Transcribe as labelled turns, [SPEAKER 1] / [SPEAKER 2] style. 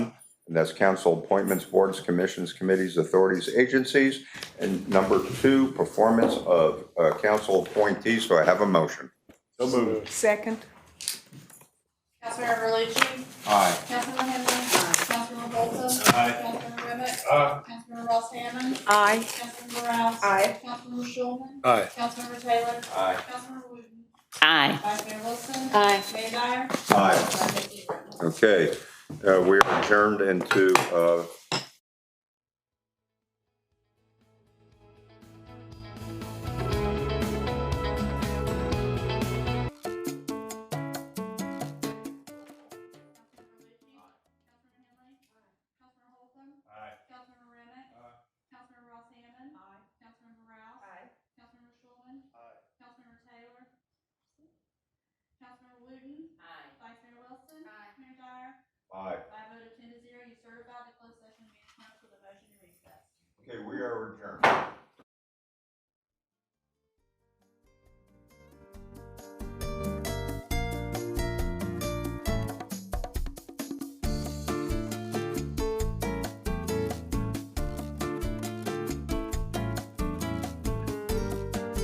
[SPEAKER 1] and that's council appointments, boards, commissions, committees, authorities, agencies. And number two, performance of uh, council appointees. So I have a motion?
[SPEAKER 2] So moved.
[SPEAKER 3] Second?
[SPEAKER 4] Councilmember Berluci?
[SPEAKER 1] Aye.
[SPEAKER 4] Councilmember Henry? Councilmember Bolton?
[SPEAKER 2] Aye.
[SPEAKER 4] Councilmember Remick?
[SPEAKER 2] Aye.
[SPEAKER 4] Councilmember Ross Hammond?
[SPEAKER 3] Aye.
[SPEAKER 4] Councilmember Rouse?
[SPEAKER 3] Aye.
[SPEAKER 4] Councilmember Shulman?
[SPEAKER 2] Aye.
[SPEAKER 4] Councilmember Taylor?
[SPEAKER 1] Aye.
[SPEAKER 4] Councilmember Wooten?
[SPEAKER 5] Aye.
[SPEAKER 4] Vice Mayor Wilson?
[SPEAKER 5] Aye.
[SPEAKER 4] Mayor Dyer?
[SPEAKER 1] Aye.
[SPEAKER 4] Five fifty.
[SPEAKER 1] Okay, uh, we are adjourned into, uh,
[SPEAKER 4] Councilmember Holcomb?
[SPEAKER 2] Aye.
[SPEAKER 4] Councilmember Remick?
[SPEAKER 2] Aye.
[SPEAKER 4] Councilmember Ross Hammond? Aye. Councilmember Rouse? Aye. Councilmember Shulman?
[SPEAKER 2] Aye.
[SPEAKER 4] Councilmember Taylor? Councilmember Wooten? Aye. Vice Mayor Wilson? Aye. Mayor Dyer?
[SPEAKER 1] aye.
[SPEAKER 4] By a vote of ten to zero, you certify the closed session meeting minutes with a motion to recess.
[SPEAKER 1] Okay, we are adjourned.